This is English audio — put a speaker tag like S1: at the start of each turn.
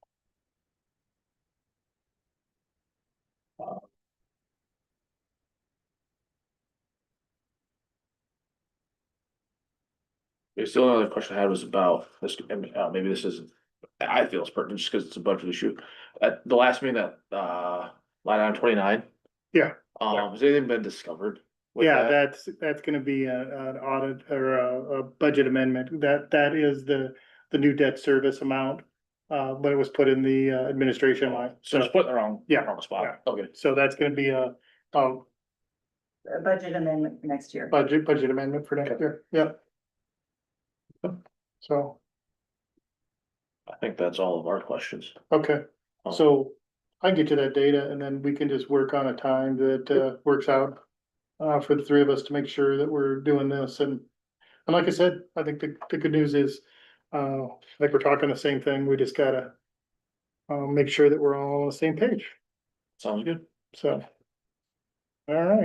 S1: It's the only other question I had was about this, and, uh, maybe this isn't, I feel it's pertinent just because it's a budget issue. At the last meeting that, uh, line item twenty-nine.
S2: Yeah.
S1: Um, has anything been discovered? with
S2: Yeah,
S1: that?
S2: that's, that's gonna be a, an audit or a, a budget amendment. That, that is the, the new debt service amount. Uh, but it was put in the uh, administration line.
S1: So
S2: So,
S1: it's put in the wrong,
S2: Yeah,
S1: wrong spot. Okay.
S2: so that's gonna be a, a
S3: a budget amendment for next year.
S2: budget, budget amendment for next year. Yep. So,
S1: I think that's all of our questions.
S2: okay,
S1: Um,
S2: so I can get you that data and then we can just work on a time that, uh, works out. Uh, for the three of us to make sure that we're doing this and, and like I said, I think the, the good news is, uh, like we're talking the same thing, we just gotta. Uh, make sure that we're all on the same page,
S1: Sounds good.
S2: so. All right.